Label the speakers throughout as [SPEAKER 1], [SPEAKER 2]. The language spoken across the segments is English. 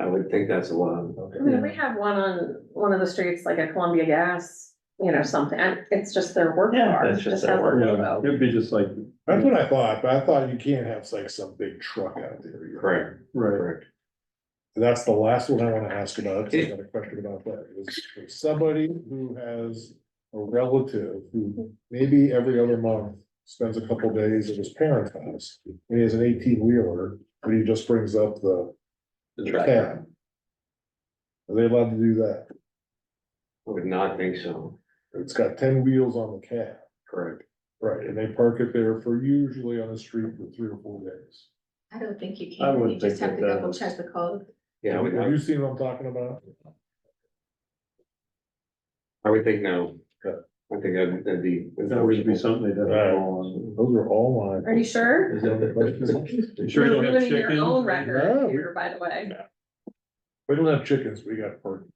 [SPEAKER 1] I would think that's a lot.
[SPEAKER 2] Okay.
[SPEAKER 3] I mean, we have one on one of the streets, like at Columbia Gas, you know, something, and it's just their work
[SPEAKER 4] Yeah,
[SPEAKER 3] car.
[SPEAKER 4] that's just their
[SPEAKER 3] has a
[SPEAKER 4] work.
[SPEAKER 3] logo.
[SPEAKER 2] It'd be just like, that's what I thought, but I thought you can't have like some big truck out there. you know?
[SPEAKER 1] Correct,
[SPEAKER 2] Right.
[SPEAKER 1] correct.
[SPEAKER 2] That's the last one I wanna ask about, 'cause I got a question about that, is if somebody who has a relative who maybe every other month. Spends a couple days at his parents' house, and he has an eighteen wheeler, but he just brings up the
[SPEAKER 1] The tractor,
[SPEAKER 2] cab. Are they allowed to do that?
[SPEAKER 1] I would not think so,
[SPEAKER 2] It's got ten wheels on the cab,
[SPEAKER 1] correct.
[SPEAKER 2] right, and they park it there for usually on the street for three or four days.
[SPEAKER 5] I don't think you
[SPEAKER 4] I
[SPEAKER 5] can,
[SPEAKER 4] wouldn't
[SPEAKER 5] you just
[SPEAKER 4] think
[SPEAKER 5] have to
[SPEAKER 4] that that
[SPEAKER 5] double
[SPEAKER 4] was-
[SPEAKER 5] check the code.
[SPEAKER 1] Yeah, I would,
[SPEAKER 2] Have
[SPEAKER 1] I
[SPEAKER 2] you seen what I'm talking about?
[SPEAKER 1] would think no. I think that'd that'd be.
[SPEAKER 4] That would be something that.
[SPEAKER 2] Right. Those are all
[SPEAKER 3] Are
[SPEAKER 2] mine.
[SPEAKER 3] you sure?
[SPEAKER 2] Is that the question?
[SPEAKER 4] You sure you
[SPEAKER 3] You're
[SPEAKER 4] don't have
[SPEAKER 3] ruining your
[SPEAKER 4] chickens?
[SPEAKER 3] own
[SPEAKER 2] No.
[SPEAKER 3] record here, by the way.
[SPEAKER 2] We don't have chickens, we got pork.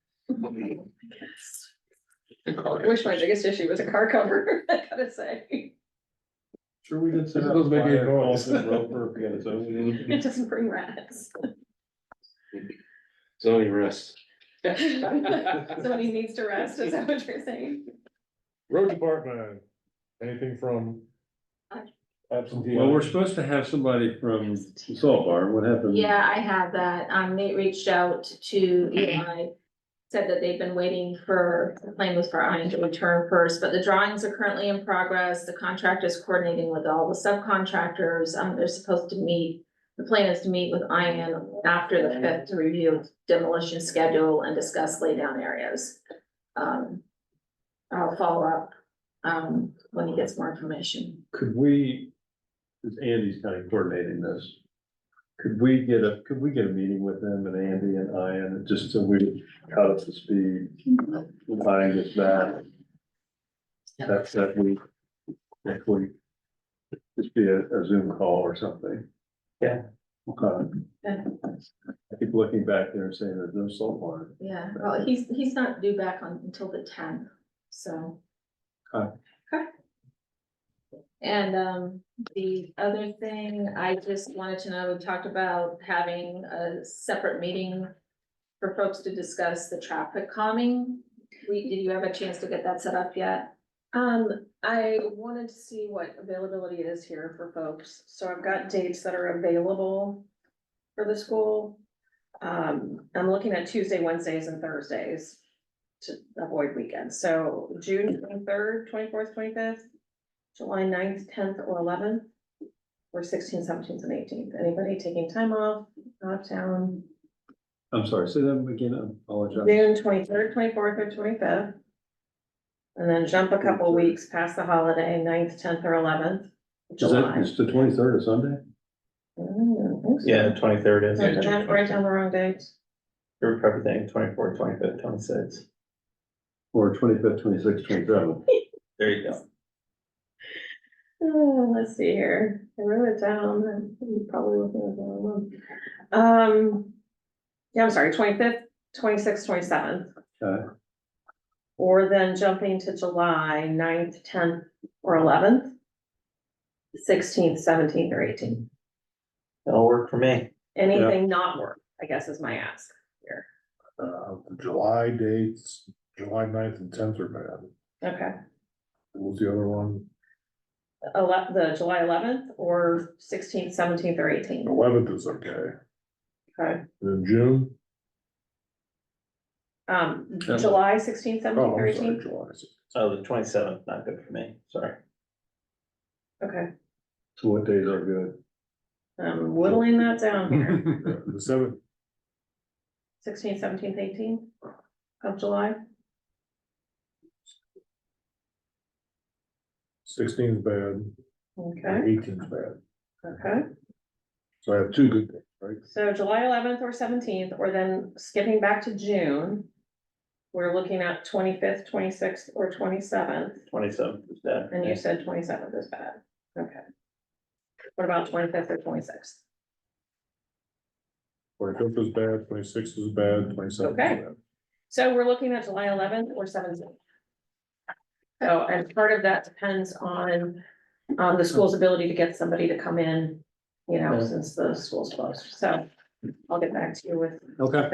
[SPEAKER 3] I wish my biggest issue was a car cover, I gotta say.
[SPEAKER 4] Sure we did set
[SPEAKER 2] It
[SPEAKER 4] up.
[SPEAKER 2] doesn't make any
[SPEAKER 4] fire
[SPEAKER 2] noise.
[SPEAKER 4] calls in Roper, if we had its own.
[SPEAKER 3] It doesn't bring rats.
[SPEAKER 1] Zoning rest.
[SPEAKER 3] Somebody needs to rest, is that what you're saying?
[SPEAKER 2] Road department, anything from? Absentee.
[SPEAKER 4] Well, we're supposed to have somebody from the Salt Bar, what happened?
[SPEAKER 5] Yeah, I have that. Um, they reached out to Eli. Said that they've been waiting for, the plan was for I to return first, but the drawings are currently in progress. The contractor is coordinating with all the subcontractors. Um, they're supposed to meet. The plan is to meet with Ian after the fifth to review demolition schedule and discuss laydown areas. Um, I'll follow up, um, when he gets more information.
[SPEAKER 4] Could we, because Andy's kind of coordinating this, could we get a, could we get a meeting with them and Andy and Ian, just so we cut up to speed? When Ian gets back. That's that week, next week. Just be a, a Zoom call or something.
[SPEAKER 1] Yeah.
[SPEAKER 4] Okay.
[SPEAKER 5] Yeah.
[SPEAKER 4] I keep looking back there and saying there's no salt water.
[SPEAKER 5] Yeah, well, he's, he's not due back on, until the tenth, so.
[SPEAKER 4] Okay.
[SPEAKER 5] Okay. And, um, the other thing, I just wanted to know, we talked about having a separate meeting for folks to discuss the traffic calming. We, did you have a chance to get that set up yet?
[SPEAKER 3] Um, I wanted to see what availability is here for folks, so I've got dates that are available for the school. Um, I'm looking at Tuesday, Wednesdays and Thursdays to avoid weekends, so June twenty-third, twenty-fourth, twenty-fifth, July 9th, tenth, or eleventh, or sixteenth, seventeenth, and eighteenth, anybody taking time off, out of town?
[SPEAKER 4] I'm sorry, say that again, I apologize.
[SPEAKER 3] June twenty-third, twenty-fourth, or twenty-fifth. And then jump a couple weeks past the holiday, 9th, tenth, or eleventh,
[SPEAKER 4] Is that,
[SPEAKER 3] July. Mm,
[SPEAKER 4] it's the twenty-third of Sunday?
[SPEAKER 6] Yeah, the twenty-third is.
[SPEAKER 3] Did I write down the wrong dates?
[SPEAKER 6] You're probably twenty-four, twenty-fifth, twenty-sixth.
[SPEAKER 4] Or twenty-fifth, twenty-sixth, twenty-seventh?
[SPEAKER 6] There you go.
[SPEAKER 3] Oh, let's see here, I wrote it down, and you probably looking at the wrong one. Um, yeah, I'm sorry, twenty-fifth, twenty-sixth, twenty-seventh.
[SPEAKER 4] Okay.
[SPEAKER 3] Or then jumping to July 9th, tenth, or eleventh. Sixteenth, seventeenth, or eighteenth.
[SPEAKER 6] That'll work for me.
[SPEAKER 3] Anything not work, I guess is my ask.
[SPEAKER 2] Uh, July dates, July 9th and tenth are bad.
[SPEAKER 3] Okay.
[SPEAKER 2] What was the other one?
[SPEAKER 3] Ele- the July eleventh or sixteenth, seventeenth or eighteenth,
[SPEAKER 2] Eleventh is okay.
[SPEAKER 3] okay?
[SPEAKER 2] Then June,
[SPEAKER 3] Um, July sixteenth, seventeenth
[SPEAKER 2] oh,
[SPEAKER 3] or
[SPEAKER 2] I'm sorry,
[SPEAKER 3] eighteenth,
[SPEAKER 2] July.
[SPEAKER 6] Oh, the twenty-seventh, not good for me, sorry.
[SPEAKER 3] okay,
[SPEAKER 4] So what days are good?
[SPEAKER 3] I'm whittling that down here,
[SPEAKER 2] Yeah, The seventh,
[SPEAKER 3] sixteenth, seventeenth, eighteenth of July.
[SPEAKER 2] sixteenth is bad,
[SPEAKER 3] Okay,
[SPEAKER 2] eighteenth is bad,
[SPEAKER 3] okay,
[SPEAKER 2] so I have two good days, right?
[SPEAKER 3] so July eleventh or seventeenth, or then skipping back to June. We're looking at twenty-fifth, twenty-sixth or twenty-seventh,
[SPEAKER 6] Twenty-seventh is bad. for
[SPEAKER 3] and
[SPEAKER 6] me.
[SPEAKER 3] you said twenty-seventh is bad, okay. What about twenty-fifth or twenty-sixth?
[SPEAKER 2] Twenty-fifth is bad, twenty-sixth is bad, twenty-seventh is
[SPEAKER 3] Okay.
[SPEAKER 2] bad.
[SPEAKER 3] So we're looking at July eleventh or seventeenth. So, and part of that depends on, um, the school's ability to get somebody to come in, you know, since the school's closed, so I'll get back to you with
[SPEAKER 4] Okay.